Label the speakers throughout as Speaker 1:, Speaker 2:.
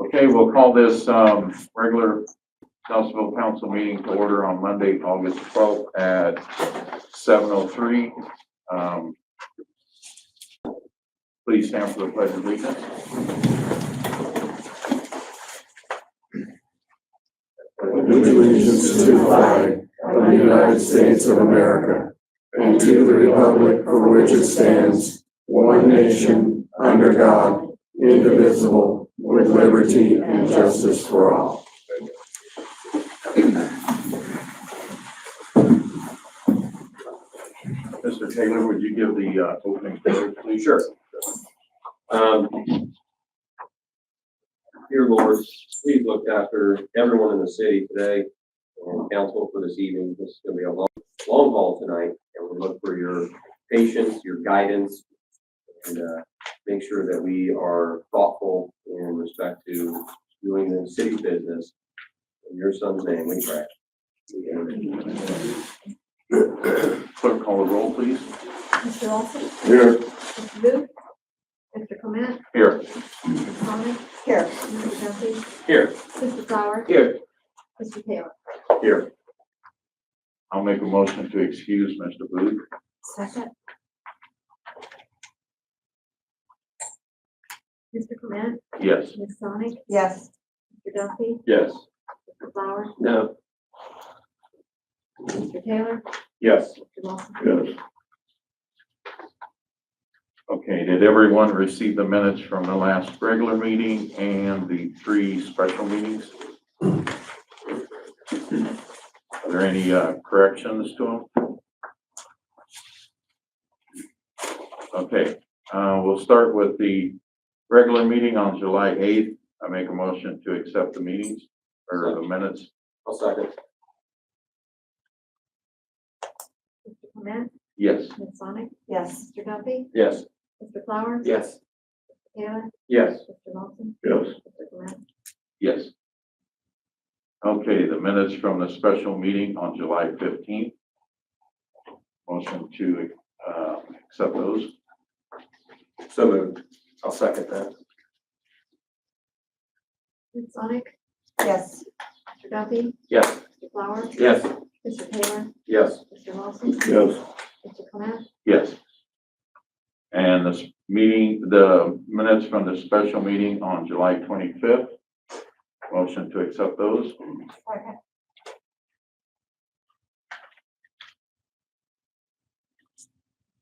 Speaker 1: Okay, we'll call this, um, regular Nelsonville Council meeting to order on Monday, August twelfth at seven oh three. Um, please stand for the pledge of allegiance.
Speaker 2: with allegiance to the flag of the United States of America and to the republic for which it stands, one nation, under God, indivisible, with liberty and justice for all.
Speaker 1: Mr. Taylor, would you give the, uh, opening statement, please?
Speaker 3: Sure. Um, Dear Lord, we've looked after everyone in the city today and council for this evening. This is gonna be a long, long haul tonight, and we look for your patience, your guidance, and, uh, make sure that we are thoughtful in respect to doing the city's business. In your son's name, we pray. Amen.
Speaker 1: Clerk, call the roll, please.
Speaker 4: Mr. Olson?
Speaker 2: Here.
Speaker 4: Mr. Booth? Mr. Clement?
Speaker 1: Here.
Speaker 4: Mr. Thomas? Here. Mr. Duffy?
Speaker 3: Here.
Speaker 4: Mr. Flower?
Speaker 1: Here.
Speaker 4: Mr. Taylor?
Speaker 1: Here. I'll make a motion to excuse Mr. Booth.
Speaker 4: Second. Mr. Clement?
Speaker 1: Yes.
Speaker 4: Ms. Sonic? Yes. Mr. Duffy?
Speaker 1: Yes.
Speaker 4: Mr. Flower?
Speaker 3: No,
Speaker 4: Mr. Taylor?
Speaker 1: Yes.
Speaker 4: Mr. Wilson?
Speaker 1: Yes. Okay, did everyone receive the minutes from the last regular meeting and the three special meetings? Are there any uh, corrections to them? Okay, uh, we'll start with the regular meeting on July eighth. I make a motion to accept the meetings or the minutes.
Speaker 3: I'll second.
Speaker 4: Mr. Clement?
Speaker 1: Yes.
Speaker 4: Ms. Sonic? Yes. Mr. Duffy?
Speaker 1: Yes.
Speaker 4: Mr. Flower?
Speaker 3: Yes.
Speaker 4: Mr. Taylor?
Speaker 1: Yes.
Speaker 4: Mr. Wilson?
Speaker 1: Yes.
Speaker 4: Mr. Clement?
Speaker 1: Yes. Okay, the minutes from the special meeting on July fifteenth. Motion to, uh, accept those.
Speaker 3: So moved. I'll second that.
Speaker 4: Ms. Sonic? Yes. Mr. Duffy?
Speaker 3: Yes.
Speaker 4: Mr. Flower?
Speaker 3: Yes.
Speaker 4: Mr. Taylor?
Speaker 3: Yes.
Speaker 4: Mr. Wilson?
Speaker 2: Yes.
Speaker 4: Mr. Clement?
Speaker 1: Yes. And this meeting, the minutes from the special meeting on July twenty-fifth. Motion to accept those.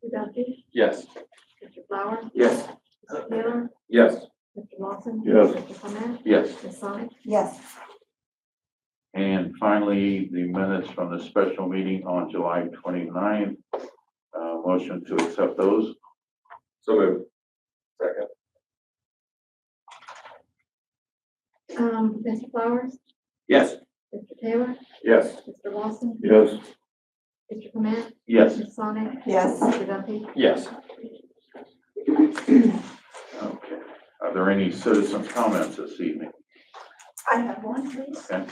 Speaker 4: Mr. Duffy?
Speaker 3: Yes.
Speaker 4: Mr. Flower?
Speaker 3: Yes.
Speaker 4: Mr. Taylor?
Speaker 3: Yes.
Speaker 4: Mr. Lawson?
Speaker 2: Yes.
Speaker 4: Mr. Clement?
Speaker 1: Yes.
Speaker 4: Ms. Sonic?
Speaker 5: Yes,
Speaker 1: And finally, the minutes from the special meeting on July twenty-ninth. Uh, motion to accept those.
Speaker 3: So moved. Second.
Speaker 4: Um, Mr. Flowers?
Speaker 3: Yes.
Speaker 4: Mr. Taylor?
Speaker 3: Yes.
Speaker 4: Mr. Lawson?
Speaker 2: Yes.
Speaker 4: Mr. Clement?
Speaker 1: Yes.
Speaker 4: Ms. Sonic?
Speaker 5: yes.
Speaker 4: Mr. Duffy?
Speaker 3: Yes.
Speaker 1: Okay. Are there any citizens' comments this evening?
Speaker 5: I have one, please.
Speaker 1: Okay.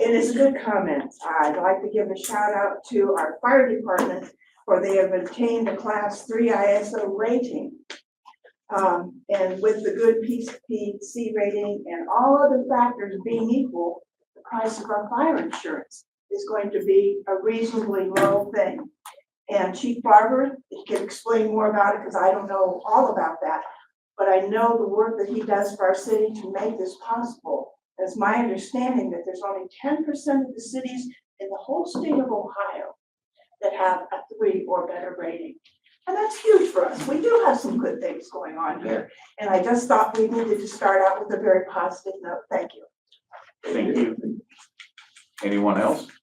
Speaker 5: It is a good comment. I'd like to give a shout out to our fire department for they have obtained a class three ISO rating. Um, and with the good PCC rating and all other factors being equal, the price of our fire insurance is going to be a reasonably low thing. And Chief Barber can explain more about it because I don't know all about that. But I know the work that he does for our city to make this possible. It's my understanding that there's only ten percent of the cities in the whole state of Ohio that have a three or better rating. And that's huge for us. We do have some good things going on here. And I just thought we needed to start out with a very positive note. Thank you.
Speaker 1: Thank you. Anyone else?